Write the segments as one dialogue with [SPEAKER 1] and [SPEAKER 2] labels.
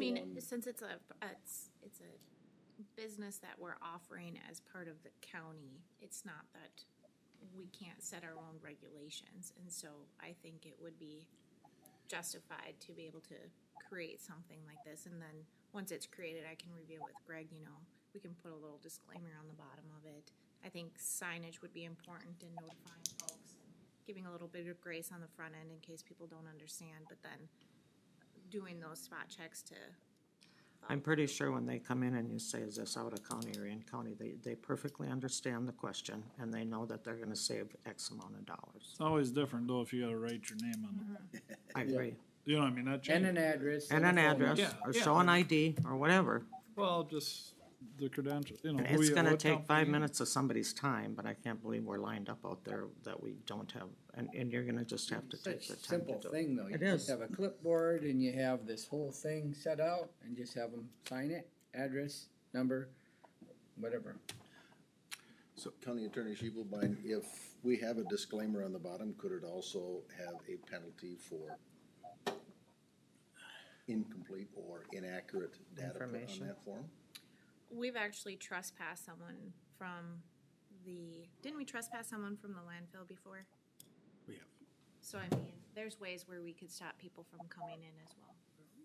[SPEAKER 1] mean,
[SPEAKER 2] one-
[SPEAKER 1] since it's a, it's, it's a business that we're offering as part of the county, it's not that we can't set our own regulations, and so I think it would be justified to be able to create something like this, and then, once it's created, I can review with Greg, you know, we can put a little disclaimer on the bottom of it. I think signage would be important in notifying folks, and giving a little bit of grace on the front end in case people don't understand, but then doing those spot checks to,
[SPEAKER 3] I'm pretty sure when they come in and you say, is this out of county or in county, they, they perfectly understand the question and they know that they're gonna save X amount of dollars.
[SPEAKER 4] It's always different though if you gotta write your name on
[SPEAKER 3] I agree.
[SPEAKER 4] it. You know what I mean? That
[SPEAKER 2] And
[SPEAKER 4] changes.
[SPEAKER 2] an address.
[SPEAKER 3] And an
[SPEAKER 2] a phone
[SPEAKER 3] address,
[SPEAKER 4] Yeah,
[SPEAKER 3] or
[SPEAKER 4] yeah.
[SPEAKER 3] show an ID, or whatever.
[SPEAKER 4] Well, just the credentials, you know.
[SPEAKER 3] And
[SPEAKER 4] who
[SPEAKER 3] it's
[SPEAKER 4] you-
[SPEAKER 3] gonna
[SPEAKER 4] what
[SPEAKER 3] take five
[SPEAKER 4] company.
[SPEAKER 3] minutes of somebody's time, but I can't believe we're lined up out there that we don't have, and, and you're gonna just have to take
[SPEAKER 2] Such
[SPEAKER 3] the
[SPEAKER 2] a
[SPEAKER 3] time to
[SPEAKER 2] simple
[SPEAKER 3] do it.
[SPEAKER 2] thing, though. You
[SPEAKER 3] It
[SPEAKER 2] just
[SPEAKER 3] is.
[SPEAKER 2] have a clipboard and you have this whole thing set out and just have them sign it, address, number, whatever.
[SPEAKER 5] So County Attorney Shebelbein, if we have a disclaimer on the bottom, could it also have a penalty for incomplete or inaccurate data put
[SPEAKER 3] Information.
[SPEAKER 5] on that form?
[SPEAKER 1] we've actually trespassed someone from the, didn't we trespass someone from the landfill before?
[SPEAKER 6] We have.
[SPEAKER 1] So I mean, there's ways where we could stop people from coming in as well.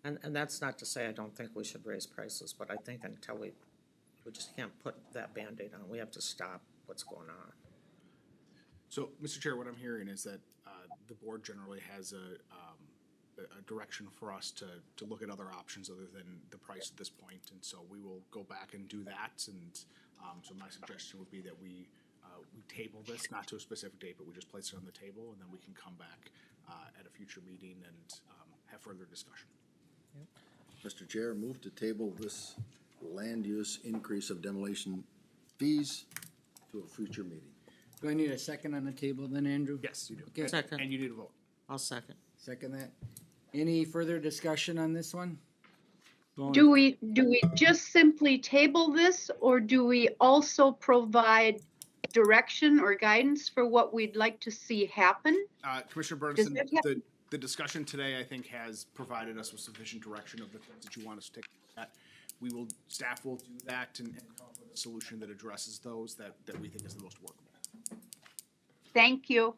[SPEAKER 3] And, and that's not to say I don't think we should raise prices, but I think until we, we just can't put that Band-Aid on, we have to stop what's going on.
[SPEAKER 6] So, Mr. Chair, what I'm hearing is that uh, the board generally has a, um, a- a direction for us to, to look at other options other than the price at this point, and so we will go back and do that, and um, so my suggestion would be that we, uh, we table this, not to a specific date, but we just place it on the table, and then we can come back uh, at a future meeting and um, have further discussion.
[SPEAKER 5] Mr. Chair, move to table this land use increase of demolition fees to a future meeting.
[SPEAKER 2] Do I need a second on the table then, Andrew?
[SPEAKER 6] Yes, you do.
[SPEAKER 2] Okay.
[SPEAKER 3] Second.
[SPEAKER 6] And you need a vote.
[SPEAKER 3] I'll second.
[SPEAKER 2] Second that. Any further discussion on this one?
[SPEAKER 4] The only-
[SPEAKER 7] Do we, do we just simply table this, or do we also provide direction or guidance for what we'd like to see happen?
[SPEAKER 6] Uh, Commissioner Bernison,
[SPEAKER 7] that
[SPEAKER 6] the, the discussion today, I think, has provided us with sufficient direction of the things that you want us to take. a look at. We will, staff will do that and, and come up with a solution that addresses those that, that we think is the most workable.
[SPEAKER 7] Thank you.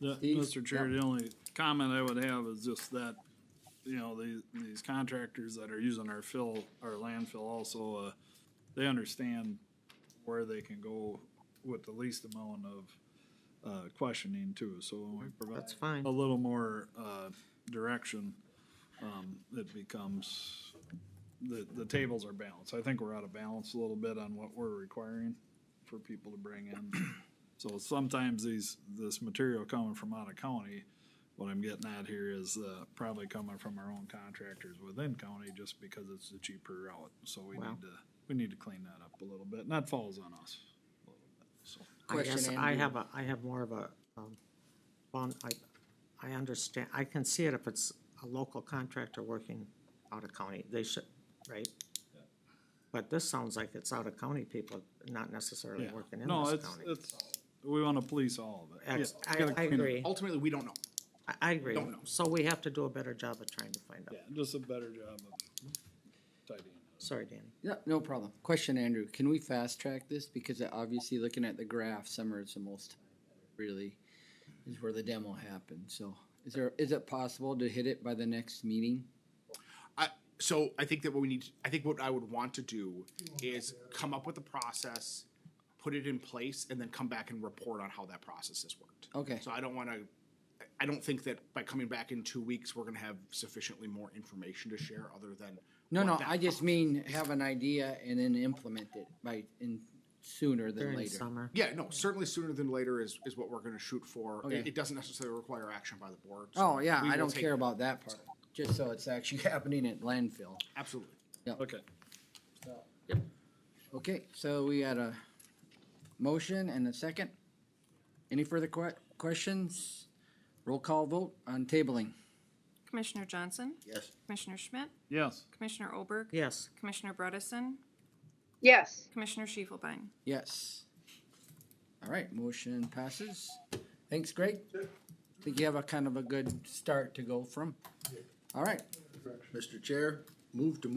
[SPEAKER 4] The-
[SPEAKER 2] Steve?
[SPEAKER 4] Mr. Chair, the only comment I would have is just that, you know, these, these contractors that are using our fill, our landfill also, uh, they understand where they can go with the least amount of, uh, questioning too, so when we provide
[SPEAKER 3] That's fine.
[SPEAKER 4] a little more, uh, direction, um, it becomes, the, the tables are balanced. I think we're out of balance a little bit on what we're requiring for people to bring in. So sometimes these, this material coming from out of county, what I'm getting at here is, uh, probably coming from our own contractors within county just because it's the cheaper route. So we
[SPEAKER 3] Well.
[SPEAKER 4] need to, we need to clean that up a little bit, and that falls on us. a little bit, so.
[SPEAKER 3] I guess
[SPEAKER 2] Question,
[SPEAKER 3] I
[SPEAKER 2] Andrew.
[SPEAKER 3] have a, I have more of a, um, bon, I, I understand, I can see it if it's a local contractor working out of county, they should, right? But this sounds like it's out of county people, not necessarily
[SPEAKER 4] Yeah.
[SPEAKER 3] working in
[SPEAKER 4] No,
[SPEAKER 3] this
[SPEAKER 4] it's,
[SPEAKER 3] county.
[SPEAKER 4] it's, we wanna police all of it. Yeah,
[SPEAKER 3] Ex-
[SPEAKER 4] it's
[SPEAKER 3] I,
[SPEAKER 4] gotta
[SPEAKER 3] I
[SPEAKER 4] clean up. Oh,
[SPEAKER 3] agree,
[SPEAKER 6] Ultimately, we don't know.
[SPEAKER 3] I, I agree,
[SPEAKER 6] Don't know.
[SPEAKER 3] so we have to do a better job of trying to find out,
[SPEAKER 4] Yeah, just a better job of tidying.
[SPEAKER 3] sorry, Danny.
[SPEAKER 2] No, no problem. Question, Andrew, can we fast track this? Because uh, obviously, looking at the graph, summer is the most, really, is where the demo happened. So is there, is it possible to hit it by the next meeting?
[SPEAKER 6] I, so I think that what we need, I think what I would want to do is come up with a process, put it in place, and then come back and report on how that process has worked.
[SPEAKER 2] Okay.
[SPEAKER 6] So I don't wanna, I don't think that by coming back in two weeks, we're gonna have sufficiently more information to share other than.
[SPEAKER 2] No,
[SPEAKER 6] what
[SPEAKER 2] no,
[SPEAKER 6] that
[SPEAKER 2] I just
[SPEAKER 6] process-
[SPEAKER 2] mean have an idea and then implement it by, in, sooner than
[SPEAKER 3] During
[SPEAKER 2] later.
[SPEAKER 3] summer,
[SPEAKER 6] Yeah, no, certainly sooner than later is, is what we're gonna shoot for. It-
[SPEAKER 2] Okay.
[SPEAKER 6] It doesn't necessarily require action by the board. so
[SPEAKER 2] Oh, yeah,
[SPEAKER 6] we
[SPEAKER 2] I
[SPEAKER 6] will
[SPEAKER 2] don't
[SPEAKER 6] take-
[SPEAKER 2] care about that part, just so it's actually happening at landfill.
[SPEAKER 6] Absolutely.
[SPEAKER 4] Okay.
[SPEAKER 2] Okay, so we had a motion and a second. Any further que- questions? Roll call vote on tabling.
[SPEAKER 8] Commissioner Johnson?
[SPEAKER 5] Yes.
[SPEAKER 8] Commissioner Schmidt?
[SPEAKER 4] Yes,
[SPEAKER 8] Commissioner Olberg?
[SPEAKER 3] yes,
[SPEAKER 8] Commissioner Bredesen?
[SPEAKER 7] Yes.
[SPEAKER 8] Commissioner Schiefelbein?
[SPEAKER 2] Yes. All right, motion passes. Thanks, Greg. Think you have a kind of a good start to go from. All right,
[SPEAKER 5] Mr. Chair, move to